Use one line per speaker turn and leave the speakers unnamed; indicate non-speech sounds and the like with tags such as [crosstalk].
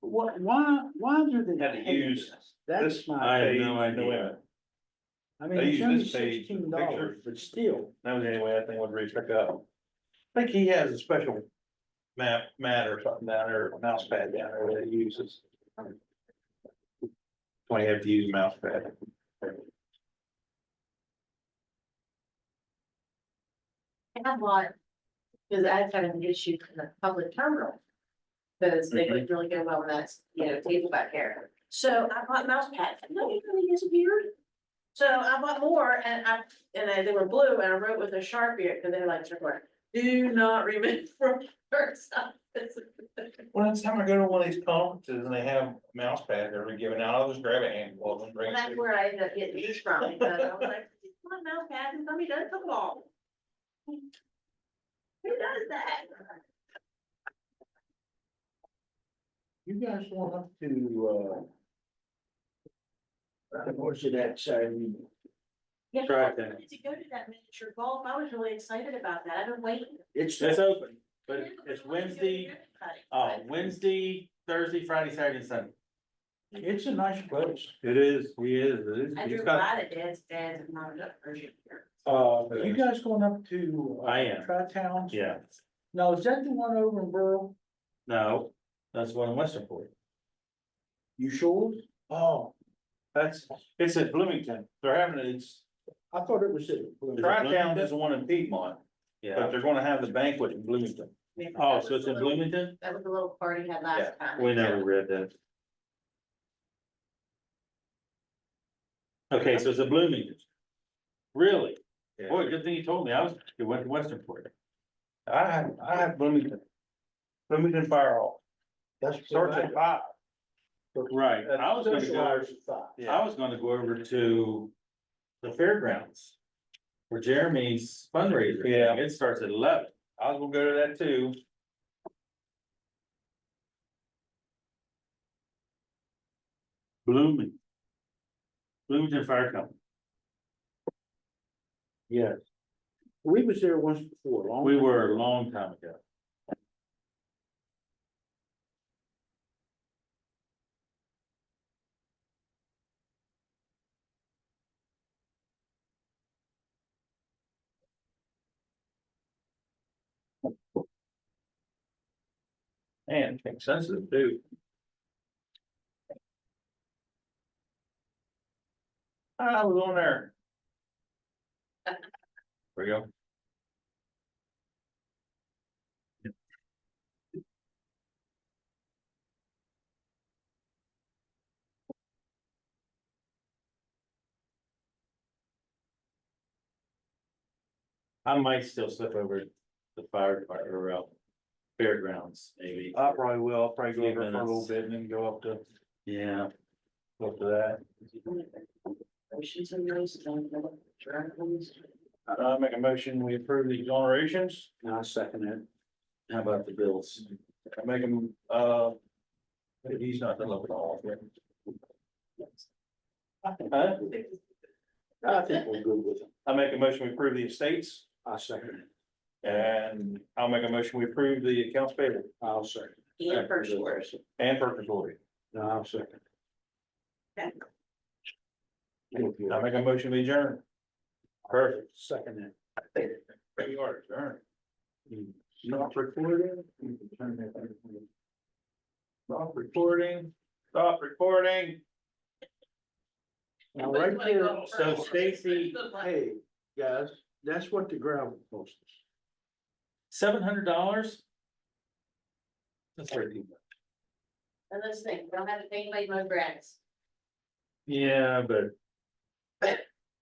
Why, why, why do they?
Had to
pay
use
us?
This
That's
I
my,
have no
page, no
idea.
I mean,
they
it's
use
only
this page for
sixteen dollars,
pictures.
but still,
That was the only way that thing would reach back up. I think he has a special map, mat or something down there, mouse pad down there that he uses. Why you have to use a mouse pad.
I have one, because I've had an issue in the public terminal. Because they would really go well with that, you know, table back there. So I bought mouse pads, no, it really is weird. So I bought more and I, and I- they were blue and I wrote with a sharpie, because they're like, "Sure, do not [laughs] remove from first.
Well, next time I go to one of these conferences and they have mouse pads that are given out, I'll just grab a handful of them, bring it.
That's where I ended up getting these from, because I was like, my mouse pad is gonna be done football. Who does that?
you guys won't have to, uh. uh, What's it at, sorry?
Yeah,
Try
I
it then.
wanted to go to that miniature golf. I was really excited about that. I've been waiting.
It's,
It's open, but
Yeah, but
it's
I wanted to go to
Wednesday,
everybody,
uh,
but
Wednesday, Thursday, Friday, Saturday, and Sunday. Oh,
it's a nice place.
It is, he is, it is.
I drew a lot of dad's, dad's and mom's up version here.
Uh, you guys going up to? uh,
I am.
Tri-Towns?
Yeah,
Now, is that the one over in Burl?
no, that's one in Westernport.
You sure? Oh,
That's, it's at Bloomington, they're having, it- it's,
I thought it was it.
Tri-Town is the one in Piedmont, but
Yeah,
they're gonna have the banquet in Bloomington.
oh, so it's in Bloomington?
That was the little party had last time.
We never read that. Okay, so it's a Bloomington. Really? Boy, good thing you told me. I was, you went to Westernport.
I have, I have Bloomington. Bloomington Fire Hall,
That's.
starts at five.
Right, I was gonna
Social
go,
hours at five.
I was gonna go over to the fairgrounds. For Jeremy's fundraiser. thing.
Yeah.
It starts at eleven.
I was gonna go to that too.
Blooming. Bloomington Fire Company.
Yes. We was there once before, long.
We were a long time ago.
Man, it's sensitive too. I was on there.
There you go. I might still slip over to the fire department or uh, fairgrounds, maybe.
I probably will, I'll probably go
Few
over for a little
minutes.
bit and then go up to,
Yeah,
up to that.
Oceans and those, don't know what dragons.
Uh, make a motion, we approve the exonerations,
And I second it.
how about the bills?
I make them, uh. He's not the local law. Huh?
I think we're good with it.
I make a motion, we approve the estates,
I second it.
and I'll make a motion, we approve the accounts payable
I'll second. it.
And first words.
and purchase order.
No, I'll second.
Okay.
I make a motion, we adjourn. Perfect.
Second
We are adjourned.
it.
Stop recording. Stop recording, stop recording.
Now, right there,
so Stacy-
hey, guys, that's what the gravel cost us.
Seven hundred dollars? That's pretty.
And those things, we don't have to pay anybody my grants.
Yeah, but